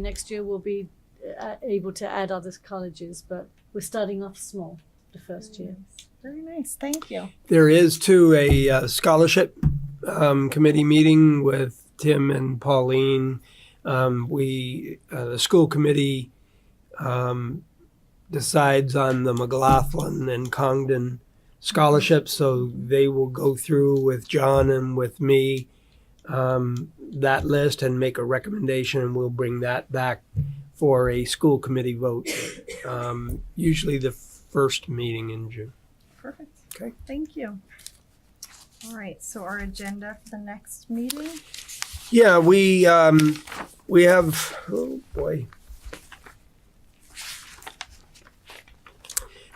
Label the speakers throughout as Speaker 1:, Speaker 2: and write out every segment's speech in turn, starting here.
Speaker 1: Next year we'll be uh, able to add other colleges, but we're starting off small the first year.
Speaker 2: Very nice. Thank you.
Speaker 3: There is too a uh, scholarship um, committee meeting with Tim and Pauline. Um, we uh, the school committee um, decides on the McLaughlin and Congdon scholarships, so they will go through with John and with me um, that list and make a recommendation, and we'll bring that back for a school committee vote. Um, usually the first meeting in June.
Speaker 2: Perfect.
Speaker 3: Okay.
Speaker 2: Thank you. All right. So our agenda for the next meeting.
Speaker 3: Yeah, we, um, we have, oh boy.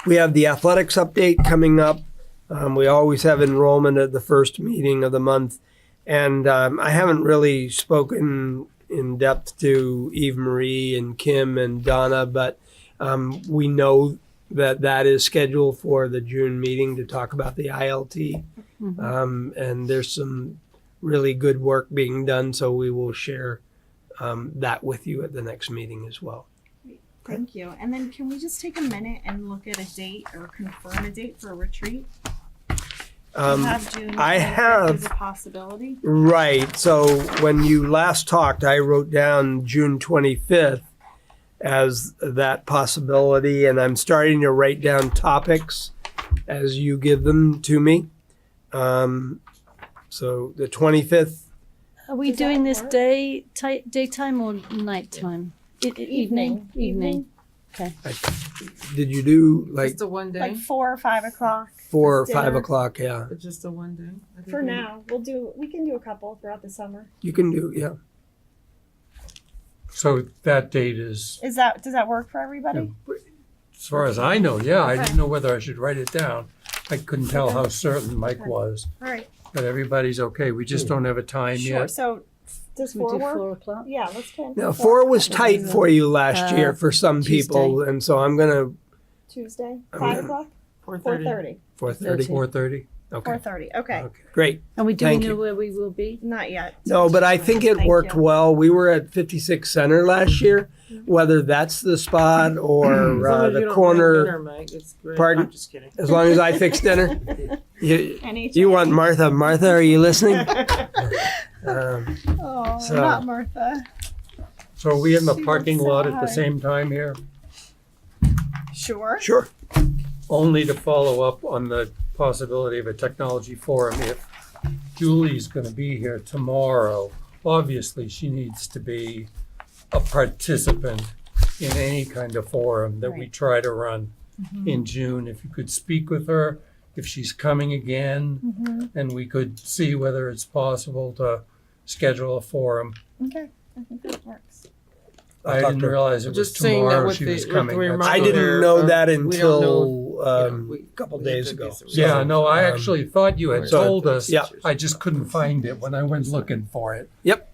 Speaker 3: We have the athletics update coming up. Um, we always have enrollment at the first meeting of the month. And, um, I haven't really spoken in depth to Eve Marie and Kim and Donna, but, um, we know that that is scheduled for the June meeting to talk about the ILT.
Speaker 1: Mhm.
Speaker 3: Um, and there's some really good work being done, so we will share um, that with you at the next meeting as well.
Speaker 2: Thank you. And then can we just take a minute and look at a date or confirm a date for a retreat? We
Speaker 3: Um,
Speaker 2: have June
Speaker 3: I
Speaker 2: 25th
Speaker 3: have-
Speaker 2: as a possibility.
Speaker 3: right, so when you last talked, I wrote down June 25th as that possibility, and I'm starting to write down topics as you give them to me. Um, so the 25th
Speaker 1: Are we
Speaker 2: Does that
Speaker 1: doing this
Speaker 2: work?
Speaker 1: day ti- daytime or nighttime? E- e- evening.
Speaker 2: Evening.
Speaker 1: Evening.
Speaker 3: Did you do like
Speaker 4: just a one day.
Speaker 2: Like four or five o'clock.
Speaker 3: four or
Speaker 2: Just
Speaker 3: five
Speaker 2: dinner.
Speaker 3: o'clock? Yeah,
Speaker 4: It's just a one day. I think
Speaker 5: For
Speaker 2: Mm-hmm.
Speaker 4: we-
Speaker 5: now, we'll do, we can do a couple throughout the summer.
Speaker 3: you can do. Yeah,
Speaker 6: So that date is,
Speaker 2: Is that does that work for everybody?
Speaker 6: as far as I know, yeah, I
Speaker 2: Okay.
Speaker 6: didn't know whether I should write it down. I couldn't tell how certain Mike
Speaker 2: Okay.
Speaker 6: was,
Speaker 2: All right.
Speaker 6: but everybody's okay. We just don't have a time
Speaker 2: Sure.
Speaker 6: yet.
Speaker 2: So
Speaker 5: Does
Speaker 1: We
Speaker 5: four
Speaker 1: do
Speaker 5: work?
Speaker 1: four o'clock.
Speaker 5: Yeah, let's plan.
Speaker 3: now
Speaker 5: for
Speaker 3: four was tight for you last
Speaker 1: Uh,
Speaker 3: year for some people, and so I'm gonna
Speaker 5: Tuesday,
Speaker 3: I'm
Speaker 5: five
Speaker 3: gonna-
Speaker 5: o'clock,
Speaker 4: Four
Speaker 5: four
Speaker 4: thirty.
Speaker 5: thirty.
Speaker 3: Four thirty.
Speaker 6: Four thirty?
Speaker 2: four
Speaker 3: Okay,
Speaker 2: thirty.
Speaker 3: Uh,
Speaker 2: Okay.
Speaker 6: Okay.
Speaker 3: great.
Speaker 1: And we do we
Speaker 3: Thank
Speaker 1: know
Speaker 3: you.
Speaker 1: where we will be?
Speaker 2: Not yet.
Speaker 3: No, but I think it
Speaker 2: Thank
Speaker 3: worked
Speaker 2: you.
Speaker 3: well. We were at fifty-six Center last year, whether that's the spot or
Speaker 4: As long
Speaker 3: uh,
Speaker 4: as you
Speaker 3: the
Speaker 4: don't have
Speaker 3: corner.
Speaker 4: dinner, Mike, it's great.
Speaker 3: Pardon?
Speaker 4: I'm just kidding.
Speaker 3: As long as I fix dinner, you,
Speaker 2: Any
Speaker 3: you want Martha? Martha, are you listening? Um,
Speaker 2: Oh,
Speaker 3: So-
Speaker 2: not Martha.
Speaker 6: So are we in the
Speaker 2: She
Speaker 6: parking
Speaker 2: looks so
Speaker 6: lot at
Speaker 2: high.
Speaker 6: the same time here?
Speaker 2: Sure.
Speaker 3: sure.
Speaker 6: Only to follow up on the possibility of a technology forum if Julie's gonna be here tomorrow. Obviously, she needs to be a participant in any kind of forum that we
Speaker 2: Right. Mm-hmm.
Speaker 6: try to run. in June, if you could speak with her, if she's coming again,
Speaker 2: Mhm.
Speaker 6: and we could see whether it's possible to schedule a forum.
Speaker 2: Okay. I think that works.
Speaker 3: I'll
Speaker 6: I
Speaker 3: talk
Speaker 6: didn't
Speaker 3: to her.
Speaker 6: realize it was
Speaker 4: Just saying that
Speaker 6: tomorrow
Speaker 4: with
Speaker 6: she
Speaker 4: the-
Speaker 6: was
Speaker 4: with
Speaker 6: coming.
Speaker 4: the
Speaker 6: That's
Speaker 3: I
Speaker 4: reminder-
Speaker 6: all.
Speaker 3: didn't know
Speaker 4: Uh,
Speaker 3: that
Speaker 4: we don't
Speaker 3: until
Speaker 4: know,
Speaker 3: um,
Speaker 4: we-
Speaker 3: a couple
Speaker 4: we
Speaker 3: days
Speaker 4: have to
Speaker 3: ago.
Speaker 4: get some-
Speaker 6: Yeah, no, I
Speaker 3: Um,
Speaker 6: actually thought you had
Speaker 3: so-
Speaker 6: told us.
Speaker 3: yeah.
Speaker 6: I just couldn't find it when I went looking for it.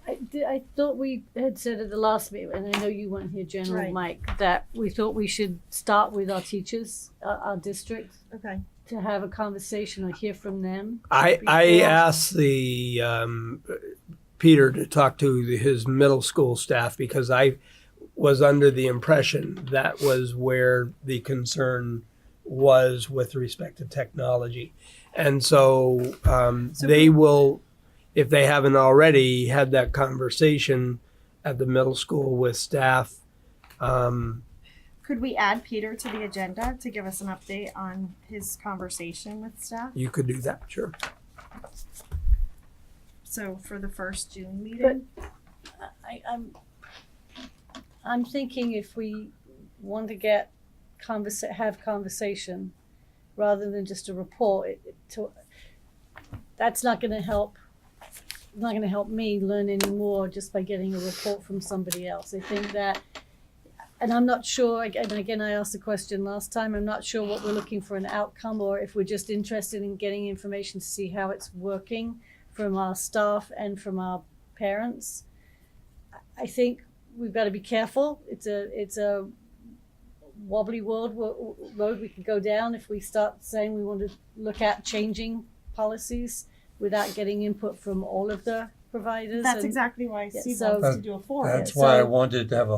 Speaker 1: I, di- I thought we had said at the last meeting, and I know you weren't here, General
Speaker 2: Right.
Speaker 1: Mike, that we thought we should start with our teachers, uh, our district,
Speaker 2: Okay.
Speaker 1: to have a conversation or hear from them.
Speaker 3: I, I
Speaker 1: Before-
Speaker 3: asked the um, Peter to talk to the- his middle school staff because I was under the impression that was where the concern was with respect to technology. And so um,
Speaker 2: So-
Speaker 3: they will, if they haven't already, had that conversation at the middle school with staff. Um,
Speaker 2: Could we add Peter to the agenda to give us an update on his conversation with staff?
Speaker 3: You could do that, sure.
Speaker 2: So for the first June
Speaker 1: But
Speaker 2: meeting?
Speaker 1: I, I'm, I'm thinking if we want to get conversa- have conversation rather than just a report, it, it, to, that's not going to help. Not going to help me learn any more just by getting a report from somebody else. I think that, and I'm not sure. And again, I asked the question last time. I'm not sure what we're looking for an outcome, or if we're just interested in getting information to see how it's working from our staff and from our parents. I- I think we've got to be careful. It's a it's a wobbly world wo- road we could go down if we start saying we want to look at changing policies without getting input from all of the providers.
Speaker 2: That's
Speaker 1: and-
Speaker 2: exactly why
Speaker 1: Yeah,
Speaker 2: Steve
Speaker 1: so-
Speaker 2: wants to do a forum.
Speaker 6: That's why I
Speaker 1: so-
Speaker 6: wanted to have a